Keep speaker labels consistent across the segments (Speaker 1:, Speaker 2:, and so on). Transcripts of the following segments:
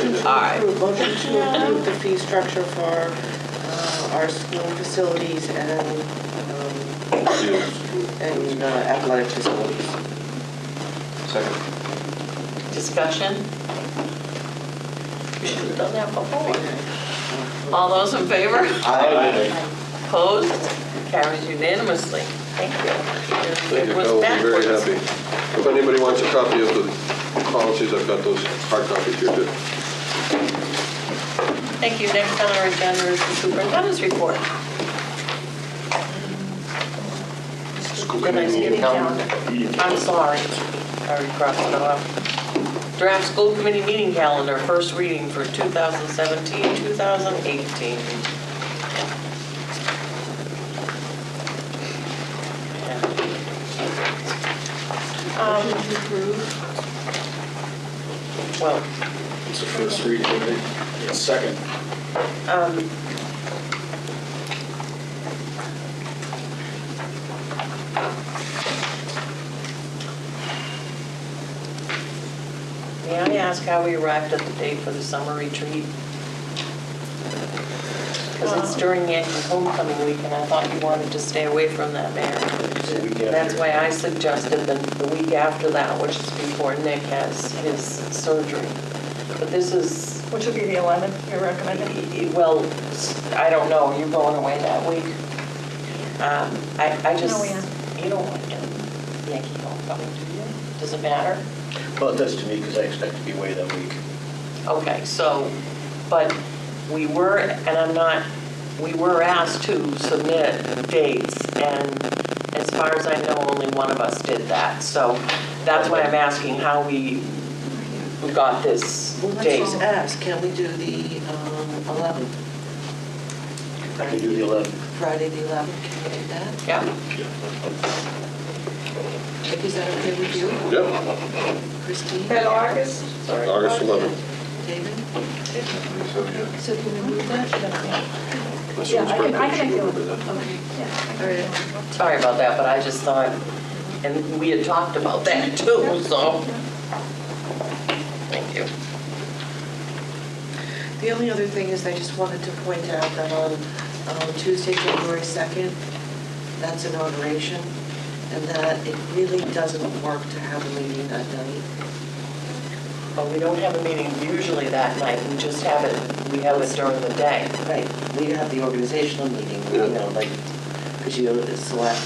Speaker 1: Aye.
Speaker 2: approve, motion to approve the fee structure for uh, our school facilities and, um, and uh, athletic facilities.
Speaker 3: Second.
Speaker 1: Discussion? We should have done that before. All those in favor?
Speaker 4: Oh,
Speaker 1: Opposed? Carries unanimously. Thank you.
Speaker 5: Thank you,
Speaker 1: It was
Speaker 5: Cal, I'm very
Speaker 1: backwards.
Speaker 5: happy. If anybody wants a copy of the policies, I've got those hard copies here too.
Speaker 1: Thank you. Next on our agenda is the superintendent's report.
Speaker 3: School
Speaker 1: The
Speaker 3: committee meeting
Speaker 1: Thanksgiving
Speaker 3: calendar.
Speaker 1: calendar. I'm sorry. I already crossed it off. Draft school committee meeting calendar, first reading for 2017, 2018.
Speaker 6: Um,
Speaker 2: Motion to approve.
Speaker 1: Well,
Speaker 4: It's the first reading, right? Second.
Speaker 1: um, may I ask how we arrived at the date for the summer retreat? Because it's during Yankee homecoming week, and I thought you wanted to stay away from that, Mayor.
Speaker 4: It's the week
Speaker 1: That's
Speaker 4: after.
Speaker 1: why I suggested the, the week after that, which is before Nick has his surgery. But this is,
Speaker 7: Which would be the 11th, you're recommending?
Speaker 1: well, I don't know, you're going away that week. Um, I, I just,
Speaker 7: No, we aren't.
Speaker 1: you don't want to Yankee homecoming, do you? Does it matter?
Speaker 4: Well, it does to me because I expect to be away that week.
Speaker 1: Okay, so, but we were, and I'm not, we were asked to submit dates, and as far as I know, only one of us did that. So that's why I'm asking how we we got this
Speaker 2: Well, let's just
Speaker 1: date.
Speaker 2: ask, can we do the um, 11th,
Speaker 4: I can do the 11th.
Speaker 2: Friday the 11th, can we do that?
Speaker 1: Yeah,
Speaker 2: Vicky, Is that okay with you,
Speaker 7: Oh,
Speaker 5: Yep,
Speaker 2: Christine?
Speaker 6: At August?
Speaker 1: sorry.
Speaker 5: August 11th.
Speaker 2: David?
Speaker 3: So,
Speaker 6: So can we move that?
Speaker 7: Yeah, I can, I can make the
Speaker 5: Remember that.
Speaker 7: 11th. Okay,
Speaker 2: All right.
Speaker 7: yeah.
Speaker 1: Sorry about that, but I just thought, and we had talked about that too, so.
Speaker 2: um,
Speaker 1: Thank you.
Speaker 2: The only other thing is I just wanted to point out that on um, Tuesday, February 2nd, that's inauguration, and that it really doesn't work to have a meeting that night.
Speaker 1: But we don't have a meeting usually that night, we just have it, we have it during the day.
Speaker 2: Right, we have the organizational meeting, you know, like, because you select,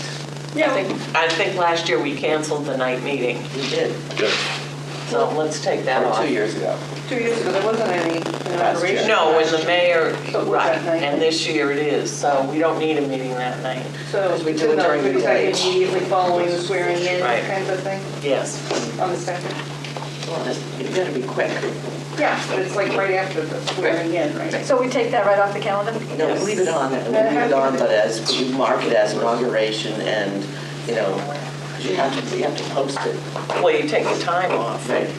Speaker 1: I think, I think last year we canceled the night meeting,
Speaker 2: we did,
Speaker 5: Yes.
Speaker 1: so let's take that
Speaker 2: or
Speaker 1: off.
Speaker 2: two years ago.
Speaker 6: Two years ago, there wasn't any inauguration.
Speaker 1: No, when the mayor,
Speaker 6: So it was
Speaker 1: right,
Speaker 6: that night.
Speaker 1: and this year it is, so we don't need a meeting that night.
Speaker 6: So
Speaker 2: Because we
Speaker 6: it's
Speaker 2: do it
Speaker 6: in the-
Speaker 2: during the
Speaker 6: because I
Speaker 2: day.
Speaker 6: Immediately following the swearing in
Speaker 1: Right.
Speaker 6: kind of thing
Speaker 1: Yes,
Speaker 6: on the second.
Speaker 2: Well, it's- It's got to be quick.
Speaker 6: Yeah, but it's like right after the swearing in, right?
Speaker 7: So we take that right off the calendar?
Speaker 2: No, we leave it on, and we leave it on, but as, we mark it as inauguration, and, you know, 'cause you have to, you have to post it.
Speaker 1: well, you take the time off.
Speaker 2: Right.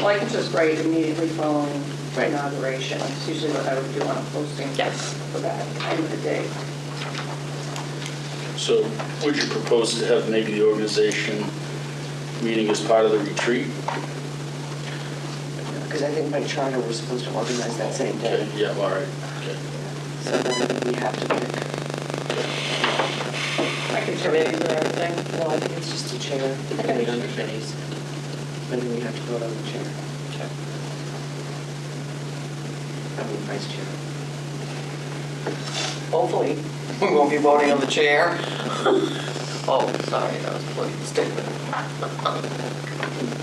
Speaker 6: Well, I can just write immediately following
Speaker 2: Right.
Speaker 6: inauguration. That's usually what I would do on a posting
Speaker 1: Yes.
Speaker 6: for that end of the day.
Speaker 8: So would you propose to have maybe the organization meeting as part of the retreat?
Speaker 2: Because I think by charter, we're supposed to organize that same
Speaker 8: Okay,
Speaker 2: day,
Speaker 8: yeah, all right. okay.
Speaker 2: so then we have to pick.
Speaker 6: I can
Speaker 1: Committees and everything.
Speaker 2: No, I think it's just the chair, the committee on committees. Maybe we have to vote on the chair. I mean, vice chair.
Speaker 1: Hopefully, we won't be voting on the chair. Oh, sorry, that was a political statement.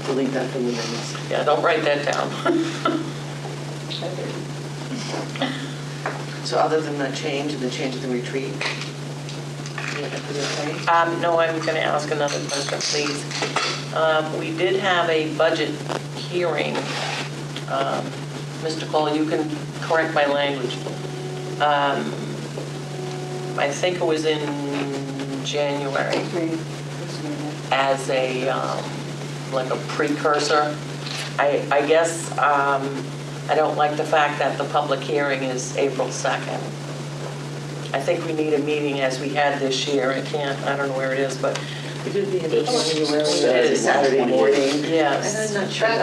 Speaker 2: Delete that from the minutes.
Speaker 1: Yeah, don't write that down.
Speaker 2: So other than that change and the change of the retreat, yeah, is it okay?
Speaker 1: Um, no, I'm gonna ask another question, please. Um, we did have a budget hearing. Um, Mr. Cole, you can correct my language. Um, I think it was in January as a, um, like a precursor. I, I guess, um, I don't like the fact that the public hearing is April 2nd. I think we need a meeting as we had this year. I can't, I don't know where it is, but
Speaker 2: It could be in
Speaker 8: It's
Speaker 2: January,
Speaker 8: Saturday
Speaker 2: Saturday
Speaker 8: morning.
Speaker 2: morning.
Speaker 1: Yes.
Speaker 2: And I'm not sure.